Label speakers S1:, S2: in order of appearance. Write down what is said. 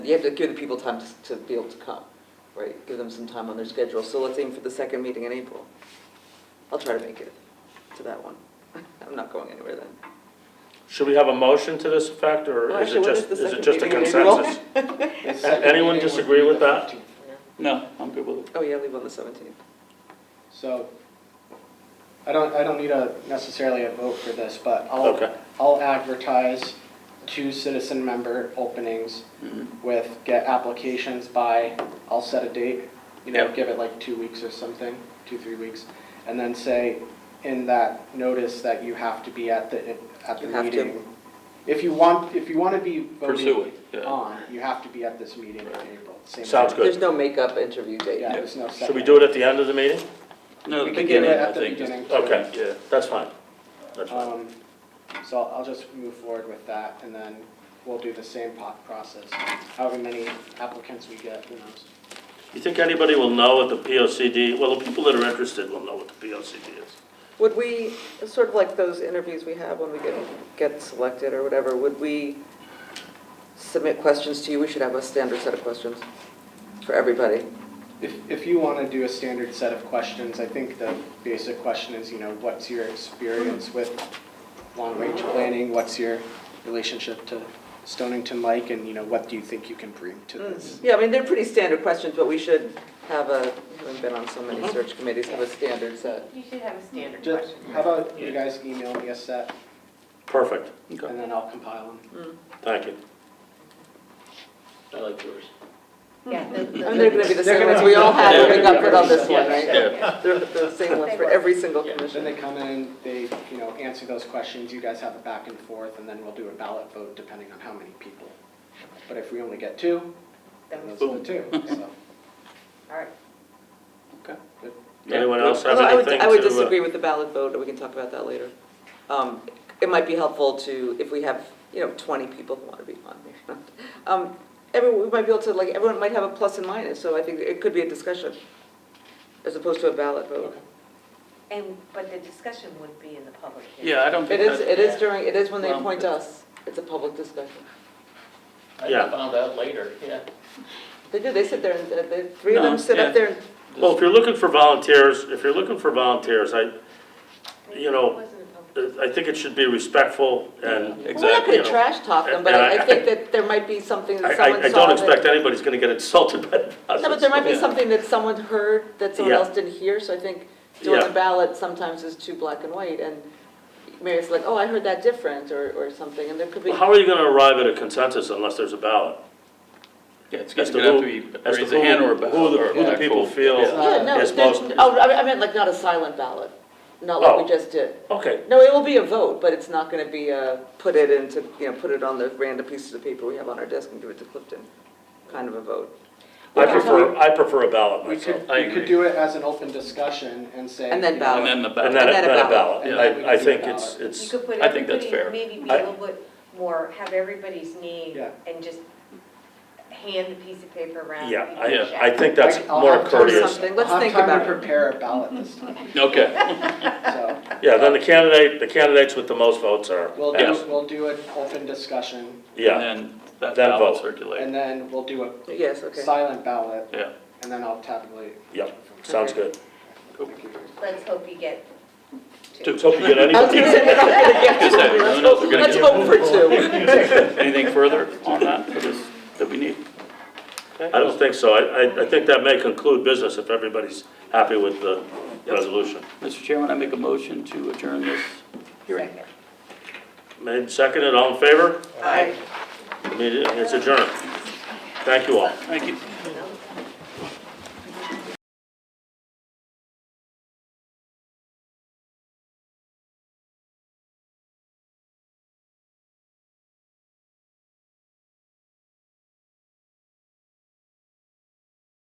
S1: You have to give the people time to, to be able to come, right? Give them some time on their schedule. So let's aim for the second meeting in April. I'll try to make it to that one. I'm not going anywhere then.
S2: Should we have a motion to this effect,
S1: Well,
S2: or is
S1: actually,
S2: it
S1: what
S2: just,
S1: the
S2: is it
S1: second
S2: just a
S1: meeting in April?
S2: consensus? A- Anyone disagree with that?
S3: No, I'm good with it.
S1: Oh, yeah, leave on the seventeenth.
S4: So, I don't, I don't need a, necessarily a vote for this, but I'll,
S2: Okay.
S4: I'll advertise two citizen member openings with, get applications by, I'll set a date, you know,
S2: Yep.
S4: give it like two weeks or something, two, three weeks, and then say in that notice that you have to be at the, at the
S1: You have to.
S4: meeting. If you want, if you want to be
S3: Pursue
S4: voting
S3: it, yeah.
S4: on, you have to be at this meeting in April. Same
S2: Sounds
S4: thing.
S2: Good.
S1: There's no makeup interview date.
S4: Yeah, there's no
S2: Should we
S4: second.
S2: do it at the end of the meeting?
S3: No,
S4: We could
S3: the
S4: do it
S3: beginning, I
S4: at the
S3: think. just-
S4: beginning. too.
S2: Okay, yeah, that's fine. That's fine.
S4: Um, So I'll I'll just move forward with that, and then we'll do the same po- process, however many applicants we get, who knows?
S2: You think anybody will know what the P O C D, well, the people that are interested will know what the P O C D is.
S1: Would we, sort of like those interviews we have when we get, get selected or whatever, would we submit questions to you? We should have a standard set of questions for everybody.
S4: If, if you want to do a standard set of questions, I think the basic question is, you know, what's your experience with long-range planning? What's your relationship to Stonington Lake, and, you know, what do you think you can bring to this?
S1: Yeah, I mean, they're pretty standard questions, but we should have a, having been on so many search committees, have a standard set.
S5: You should have a standard
S4: Mm. Just,
S5: question.
S4: how about you guys email me a set,
S2: Perfect,
S3: Okay.
S4: and then I'll compile them.
S2: thank you.
S3: I like yours.
S5: Yeah, the- the-
S1: And they're gonna be the
S4: They're
S1: same
S4: gonna-
S1: ones we all had when we got put on this
S4: Yeah.
S1: one, right?
S3: Yeah,
S1: They're the same ones for every single commission.
S4: Then they come in, they, you know, answer those questions, you guys have a back and forth, and then we'll do a ballot vote depending on how many people. But if we only get two, then those are the two, so.
S5: All right.
S4: Okay. good.
S2: Anyone else have
S1: Although I would,
S2: anything to?
S1: I would
S2: uh,
S1: disagree with the ballot vote, and we can talk about that later. Um, It might be helpful to, if we have, you know, 20 people who want to be on there. Um, Everyone, we might be able to, like, everyone might have a plus and minus, so I think it could be a discussion as opposed to a ballot vote.
S5: And, but the discussion would be in the public hearing.
S3: Yeah, I don't
S1: It
S3: think
S1: is,
S3: that,
S1: it is during, it is when they
S3: Well,
S1: appoint us. It's a public discussion.
S2: Yeah.
S6: I found out later, yeah.
S1: They do, they sit there, and uh, the three of them
S3: No,
S1: sit
S3: yeah.
S1: up there, and
S2: Well, if you're looking for volunteers, if you're looking for volunteers, I, you know,
S5: It wasn't a public-
S2: I think it should be respectful and.
S3: Yeah,
S1: we're not
S3: exactly.
S1: gonna trash talk them, but I I think that there might be something
S2: I,
S1: that
S2: I,
S1: someone
S2: I
S1: saw
S2: don't
S1: that-
S2: expect anybody's gonna get insulted by the process.
S1: No, but there might be
S3: Yeah.
S1: something that someone heard that someone
S2: Yeah.
S1: else didn't hear, so I think doing
S2: Yeah.
S1: a ballot sometimes is too black and white, and maybe it's like, oh, I heard that different, or, or something, and there could be,
S2: Well, How are you gonna arrive at a consensus unless there's a ballot?
S3: yeah, it's
S2: As
S3: gonna
S2: to
S3: gonna have
S2: who-
S3: to be,
S2: as to
S3: raise a hand
S2: who-
S3: or a bow.
S2: who the-
S3: or
S2: who the
S3: actual-
S2: people feel-
S3: yeah.
S1: yeah, uh, no,
S2: Yes,
S1: there's,
S2: most-
S1: oh, I I meant like not a silent ballot, not like we
S2: Oh.
S1: just did.
S2: Okay,
S1: No, it will be a vote, but it's not gonna be a, put it into, you know, put it on the random pieces of paper we have on our desk and give it to Clifton, kind of a vote.
S2: I prefer, I prefer a ballot
S4: We
S2: myself.
S4: could,
S3: I
S4: we could
S3: agree.
S4: do it as an open discussion and say.
S1: And then
S4: you know,
S1: ballot.
S3: And then the
S2: And
S3: ballot.
S2: then, a-
S1: And then a
S2: then a
S1: ballot.
S2: ballot,
S4: Yeah.
S2: I, I think
S4: Yeah.
S2: it's,
S5: You
S2: it's,
S5: could put
S3: I think that's
S5: everybody,
S3: fair.
S5: maybe be
S2: I-
S5: a little bit more, have everybody's name
S4: Yeah.
S5: and just hand the piece of paper around.
S2: yeah,
S5: people
S3: Yeah.
S2: I,
S5: check.
S2: I think that's
S4: like, I'll
S2: more
S4: have time-
S2: courteous.
S1: Something. Let's think
S4: I'll
S1: about
S4: have
S1: it.
S4: time to prepare a ballot this time,
S3: Okay,
S4: so
S2: Yeah, then the candidate, the candidates with the most votes are,
S4: we'll
S2: yeah,
S4: do, we'll do an open discussion,
S2: yeah,
S3: and then that
S2: Then
S3: ballot
S2: vote.
S3: circulate,
S4: and then we'll do a
S1: Yes, okay.
S4: silent ballot,
S3: yeah.
S4: and then I'll tabulate.
S2: Yep. sounds good.
S5: Let's hope you get two.
S2: Hope you get
S1: I was
S2: anybody.
S1: gonna say, we're not gonna get
S3: Just
S1: to
S3: say,
S1: it.
S3: who
S1: Let's
S3: knows, we're
S1: hope-
S3: gonna
S1: let's
S3: get-
S1: hope for two.
S3: Anything further on that for this, that we need?
S2: I don't think so, I, I, I think that may conclude business if everybody's happy with the resolution.
S3: Mr. Chairman, I make a motion to adjourn this hearing.
S2: Made, seconded, all in favor?
S1: Aye.
S2: Meeting- It's adjourned. Thank you all.
S3: Thank you.